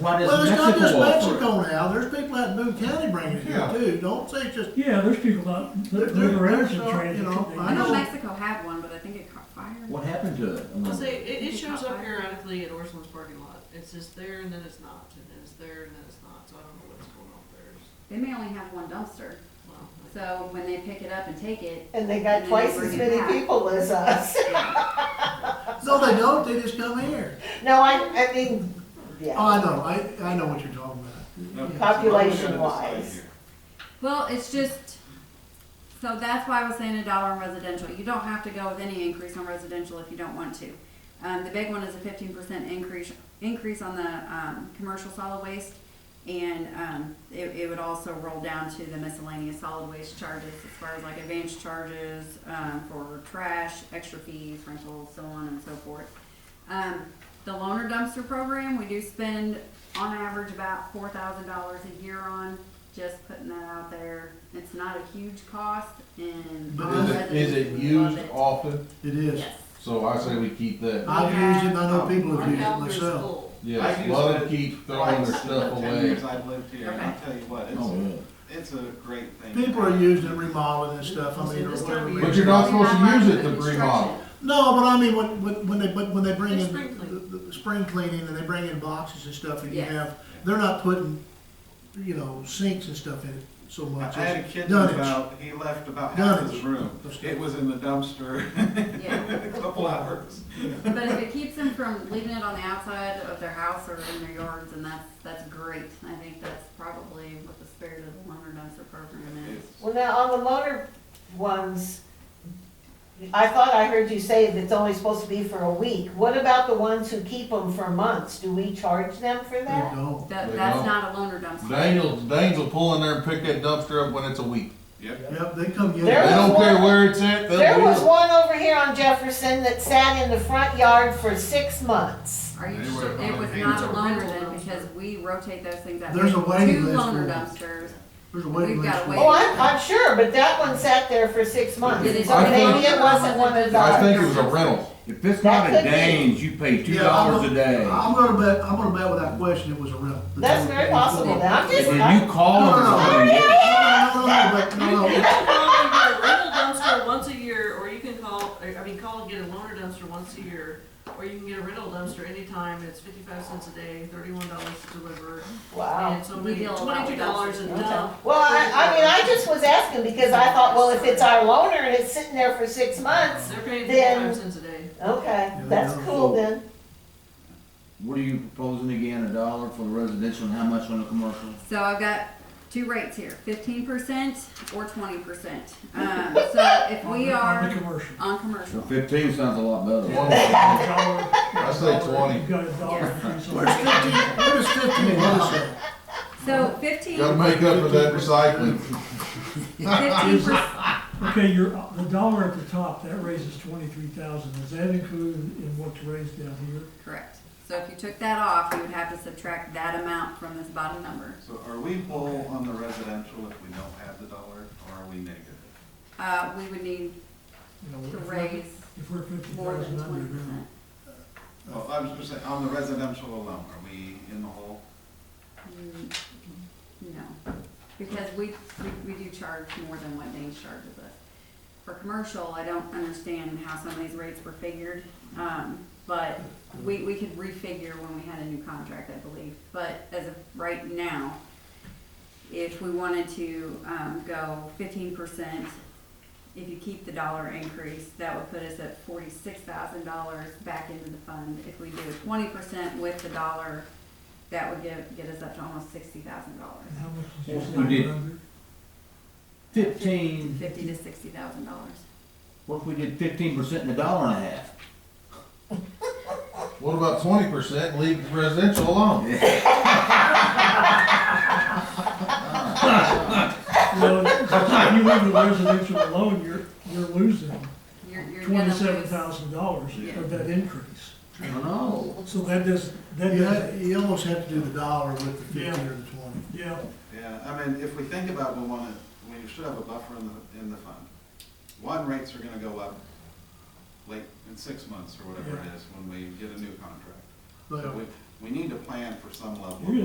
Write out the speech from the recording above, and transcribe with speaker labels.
Speaker 1: What is
Speaker 2: Well, it's not just
Speaker 1: Mexico?
Speaker 2: Mexico now, there's people out in Boone County bringing it here
Speaker 3: Yeah.
Speaker 2: too, don't say just,
Speaker 4: Yeah, there's people out,
Speaker 2: There-
Speaker 4: that live
Speaker 2: there-
Speaker 4: around
Speaker 2: there's
Speaker 4: the
Speaker 2: some,
Speaker 4: transit.
Speaker 2: you know,
Speaker 4: they-
Speaker 2: I
Speaker 5: I know
Speaker 2: know-
Speaker 5: Mexico had one, but I think it caught fire.
Speaker 1: What happened to it? I
Speaker 6: Well,
Speaker 1: wonder.
Speaker 6: see, it, it shows up periodically at Orson's parking lot. It's just there and then it's not, and then it's there and then it's not, so I don't know what's going on there. It's-
Speaker 5: They may only have one dumpster,
Speaker 6: well, I-
Speaker 5: so when they pick it up and take it.
Speaker 7: And they got
Speaker 5: then
Speaker 7: twice
Speaker 5: bring
Speaker 7: as
Speaker 5: it
Speaker 7: many
Speaker 5: back.
Speaker 7: people as us.
Speaker 2: no, they don't, they just come here.
Speaker 7: No, I, I mean,
Speaker 2: Oh,
Speaker 7: yeah,
Speaker 2: I know, I, I know what you're talking about.
Speaker 7: population wise.
Speaker 5: Well, it's just, so that's why I was saying a dollar on residential. You don't have to go with any increase on residential if you don't want to. Um, the big one is a fifteen percent increase, increase on the, um, commercial solid waste. And, um, it, it would also roll down to the miscellaneous solid waste charges as far as like advance charges, um, for trash, extra fees, rentals, so on and so forth. Um, the loaner dumpster program, we do spend on average about four thousand dollars a year on, just putting that out there. It's not a huge cost and.
Speaker 2: But
Speaker 5: all
Speaker 3: Is it, is it
Speaker 5: residents love
Speaker 3: used often?
Speaker 2: It is.
Speaker 5: Yes.
Speaker 3: So I say we keep that.
Speaker 2: I've used it, and I know
Speaker 8: Um,
Speaker 2: people
Speaker 6: Our
Speaker 2: have used it
Speaker 6: calendar is
Speaker 2: myself.
Speaker 6: full.
Speaker 3: Yes,
Speaker 8: I
Speaker 3: a
Speaker 8: use
Speaker 3: lot of
Speaker 8: it
Speaker 3: keep throwing their stuff
Speaker 8: Ten
Speaker 3: away.
Speaker 8: years I've lived here, and I'll tell you what,
Speaker 1: Oh,
Speaker 8: it's,
Speaker 1: yeah.
Speaker 8: it's a great thing.
Speaker 2: People are using it remodeling and stuff, I mean, or
Speaker 6: This
Speaker 2: whatever.
Speaker 6: time of
Speaker 2: it
Speaker 3: But
Speaker 2: is.
Speaker 3: you're not supposed
Speaker 5: Not
Speaker 3: to use it
Speaker 5: like
Speaker 3: to
Speaker 5: the
Speaker 3: remodel.
Speaker 2: No, but I mean, when, when, when they, but when they bring
Speaker 6: It's
Speaker 2: in,
Speaker 6: spring
Speaker 2: the,
Speaker 6: cleaning.
Speaker 2: the the spring cleaning and they bring in boxes and stuff and you
Speaker 5: Yes.
Speaker 2: have, they're not putting, you know, sinks and stuff in it so
Speaker 8: I
Speaker 2: much.
Speaker 8: had a
Speaker 2: It's
Speaker 8: kid
Speaker 2: done
Speaker 8: that
Speaker 2: it.
Speaker 8: about, he left about half his
Speaker 2: Dunnage.
Speaker 8: room. It was in the dumpster
Speaker 5: construction. Yeah,
Speaker 8: a couple hours.
Speaker 5: but if it keeps them from leaving it on the outside of their house or in their yards, and that's, that's great. I think that's probably what the spirit of the loaner dumpster program is.
Speaker 8: It's-
Speaker 7: Well, now, on the loaner ones, I thought I heard you say that it's only supposed to be for a week. What about the ones who keep them for months? Do we charge them for
Speaker 2: They
Speaker 7: that?
Speaker 2: don't.
Speaker 5: That,
Speaker 3: They
Speaker 5: that's
Speaker 3: don't.
Speaker 5: not a loaner dumpster.
Speaker 3: Daniel, Daniel will pull in there and pick that dumpster up when it's a week.
Speaker 8: Yep.
Speaker 2: Yep, they come get
Speaker 3: They
Speaker 7: There
Speaker 2: it.
Speaker 3: don't
Speaker 7: was
Speaker 3: care
Speaker 7: one-
Speaker 3: where it's at. they'll
Speaker 7: There
Speaker 3: do
Speaker 7: was
Speaker 3: it.
Speaker 7: one over here on Jefferson that sat in the front yard for six months.
Speaker 5: Are you
Speaker 8: They
Speaker 5: sure,
Speaker 8: were
Speaker 5: it was
Speaker 8: on a
Speaker 5: not a
Speaker 6: rental.
Speaker 5: loaner then, because we rotate those things out.
Speaker 2: There's a waiting
Speaker 5: Two
Speaker 2: list for
Speaker 5: loaner
Speaker 2: them.
Speaker 5: dumpsters,
Speaker 2: There's a
Speaker 5: We've
Speaker 2: waiting list.
Speaker 5: got
Speaker 2: for
Speaker 5: a
Speaker 2: it.
Speaker 5: waiting
Speaker 7: Oh, I'm, I'm sure, but that one sat there for six months.
Speaker 5: It is
Speaker 3: a
Speaker 7: Maybe it
Speaker 5: rental.
Speaker 7: wasn't one of
Speaker 3: I
Speaker 7: those.
Speaker 3: think it was a rental.
Speaker 9: If it's not
Speaker 7: That
Speaker 9: a
Speaker 7: could be.
Speaker 9: Danes, you pay two
Speaker 2: Yeah, I'm
Speaker 9: dollars a
Speaker 2: gonna-
Speaker 9: day.
Speaker 2: I'm gonna bet, I'm gonna bet without question it was a rental.
Speaker 7: That's very possible, then. I'm
Speaker 9: And
Speaker 7: just,
Speaker 9: then
Speaker 7: I-
Speaker 9: you call
Speaker 2: No, no, no.
Speaker 9: them. and say,
Speaker 2: No, no, no, no, but, no,
Speaker 6: You
Speaker 2: no.
Speaker 6: can call and get a rental dumpster once a year, or you can call, I I mean, call and get a loaner dumpster once a year, or you can get a rental dumpster anytime. It's fifty-five cents a day, thirty-one dollars to deliver,
Speaker 7: wow.
Speaker 6: and so
Speaker 5: We
Speaker 6: many,
Speaker 5: deal a lot
Speaker 6: twenty-two
Speaker 5: with
Speaker 6: dollars a
Speaker 5: dumpsters, don't
Speaker 6: dump.
Speaker 7: Well, I, I mean, I just was asking because I thought, well, if it's our loaner and it's sitting there for six months,
Speaker 6: They're paying
Speaker 7: Then-
Speaker 6: fifty-five cents a day.
Speaker 7: okay, that's cool then.
Speaker 1: What are you proposing again, a dollar for the residential and how much on the commercial?
Speaker 5: so I've got two rates here, fifteen percent or twenty percent. Um, so if
Speaker 4: on
Speaker 5: we
Speaker 4: the- on
Speaker 5: are
Speaker 4: the commercial.
Speaker 5: on
Speaker 1: So
Speaker 5: commercial,
Speaker 1: fifteen sounds a lot better.
Speaker 3: One-
Speaker 4: I
Speaker 3: say 20.
Speaker 4: You've got a dollar. increase on
Speaker 2: Where's fifteen, where's fifteen dollars at?
Speaker 5: so fifteen,
Speaker 3: Gotta make up for that recycling.
Speaker 5: fifteen percent,
Speaker 4: it. Okay, your, the dollar at the top, that raises twenty-three thousand. Is that included in what's raised down here?
Speaker 5: correct. So if you took that off, you would have to subtract that amount from this bottom number.
Speaker 8: So are we whole on the residential if we don't have the dollar, or are we negative?
Speaker 5: Uh, we would need
Speaker 4: You know,
Speaker 5: to
Speaker 4: if we're-
Speaker 5: raise
Speaker 4: If we're fifty
Speaker 5: more than
Speaker 4: thousand
Speaker 5: twenty
Speaker 4: under,
Speaker 5: percent.
Speaker 4: then
Speaker 8: Well, I was just saying, on the residential alone, are we in the hole?
Speaker 5: Mm, No, because we, we, we do charge more than what Danes charges us. For commercial, I don't understand how some of these rates were figured, um, but we, we could refigure when we had a new contract, I believe. But as of right now, if we wanted to, um, go fifteen percent, if you keep the dollar increase, that would put us at forty-six thousand dollars back into the fund. If we do twenty percent with the dollar, that would get, get us up to almost sixty thousand dollars,
Speaker 4: and how much is
Speaker 9: Yes,
Speaker 4: your
Speaker 9: we did.
Speaker 4: dollar under?
Speaker 9: Fifteen,
Speaker 5: fifty to sixty thousand dollars.
Speaker 1: What if we did fifteen percent and a dollar and a half?
Speaker 3: What about twenty percent? Leave the residential alone.
Speaker 4: Well, if you leave the residential alone, you're, you're losing
Speaker 5: You're, you're gonna lose.
Speaker 4: twenty-seven thousand dollars
Speaker 5: Yeah.
Speaker 4: of that increase.
Speaker 1: I don't know.
Speaker 4: So that does, that
Speaker 2: You,
Speaker 4: does,
Speaker 2: ha- you almost have to do the dollar with the fifteen or the twenty.
Speaker 4: yeah.
Speaker 8: Yeah, I mean, if we think about, we wanna, we should have a buffer in the, in the fund. One, rates are gonna go up late, in six months or whatever it is, when we get a new contract.
Speaker 2: But
Speaker 8: So we,
Speaker 10: we need to plan for some level. of
Speaker 8: You're